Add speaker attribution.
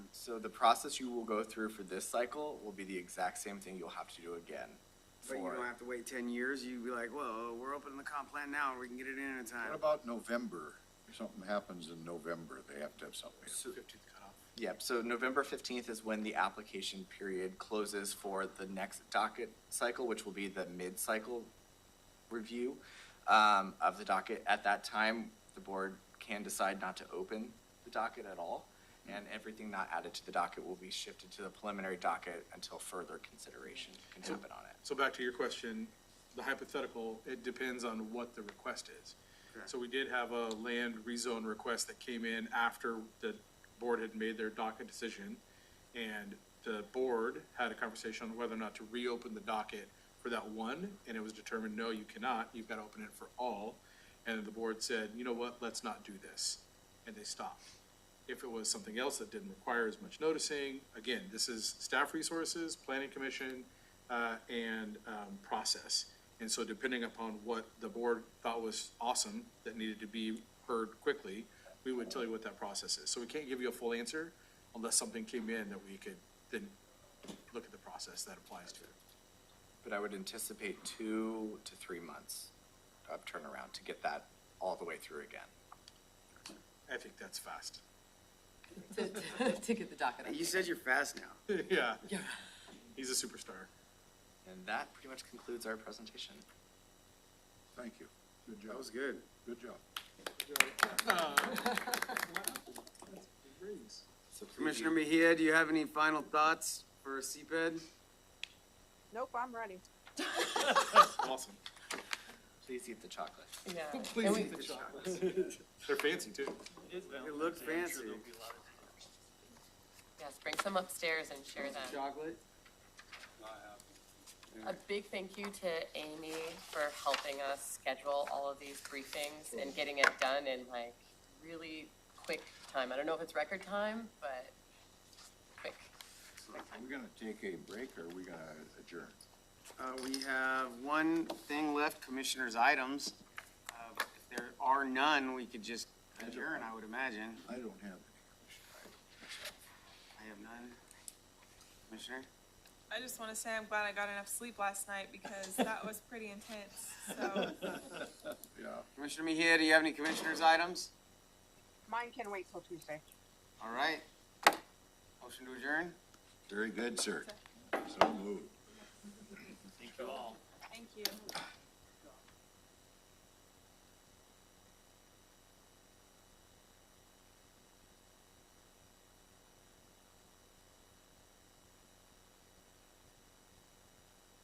Speaker 1: So the process you will go through for this cycle will be the exact same thing you'll have to do again.
Speaker 2: But you
Speaker 1: for-
Speaker 2: don't have to wait ten years, you'd be like, whoa, we're opening the comp plan now, we can get it in in
Speaker 3: What
Speaker 2: time.
Speaker 3: about November? If something happens in November, they have to have something.
Speaker 1: Yep, so November fifteenth is when the application period closes for the next docket cycle, which will be the mid-cycle review um, of the docket. At that time, the board can decide not to open the docket at all, and everything not added to the docket will be shifted to the preliminary docket until further consideration can happen on it.
Speaker 4: So back to your question, the hypothetical, it depends on what the request is. So we did have a land rezone request that came in after the board had made their docket decision. And the board had a conversation on whether or not to reopen the docket for that one, and it was determined, no, you cannot, you've got to open it for all. And the board said, you know what, let's not do this, and they stopped. If it was something else that didn't require as much noticing, again, this is staff resources, planning commission, uh, and, um, process. And so depending upon what the board thought was awesome, that needed to be heard quickly, we would tell you what that process is. So we can't give you a full answer unless something came in that we could then look at the process that applies to it.
Speaker 1: But I would anticipate two to three months of turnaround to get that all the way through again.
Speaker 4: I think that's fast.
Speaker 5: to, to- to get the docket up.
Speaker 2: You said you're fast now.
Speaker 4: Yeah,
Speaker 5: Yeah.
Speaker 4: he's a superstar.
Speaker 1: And that pretty much concludes our presentation.
Speaker 3: Thank you. Good job.
Speaker 2: That was good.
Speaker 3: Good job.
Speaker 1: So please-
Speaker 2: Commissioner Mejia, do you have any final thoughts for E CPED?
Speaker 6: Nope, I'm ready.
Speaker 4: Awesome.
Speaker 1: Please eat the chocolate.
Speaker 5: Yeah. And
Speaker 4: Please
Speaker 5: we,
Speaker 4: eat the chocolates. They're fancy too.
Speaker 2: It looked fancy.
Speaker 5: yes, bring some upstairs and share them.
Speaker 2: Chocolate?
Speaker 5: A big thank you to Amy for helping us schedule all of these briefings and getting it done in like really quick time. I don't know if it's record time, but quick.
Speaker 3: We're gonna take a break or we gonna adjourn?
Speaker 2: Uh, we have one thing left, commissioners' items. Uh, If there are none, we could just adjourn, I would imagine.
Speaker 3: I don't have any.
Speaker 2: I have none. Commissioner?
Speaker 7: I just want to say I'm glad I got enough sleep last night because that was pretty intense. So
Speaker 3: Yeah,
Speaker 2: Commissioner Mejia, do you have any commissioners' items?
Speaker 6: Mine can wait till Tuesday.
Speaker 2: All right. Motion to adjourn?
Speaker 3: very good, sir. So moved.
Speaker 7: thank you.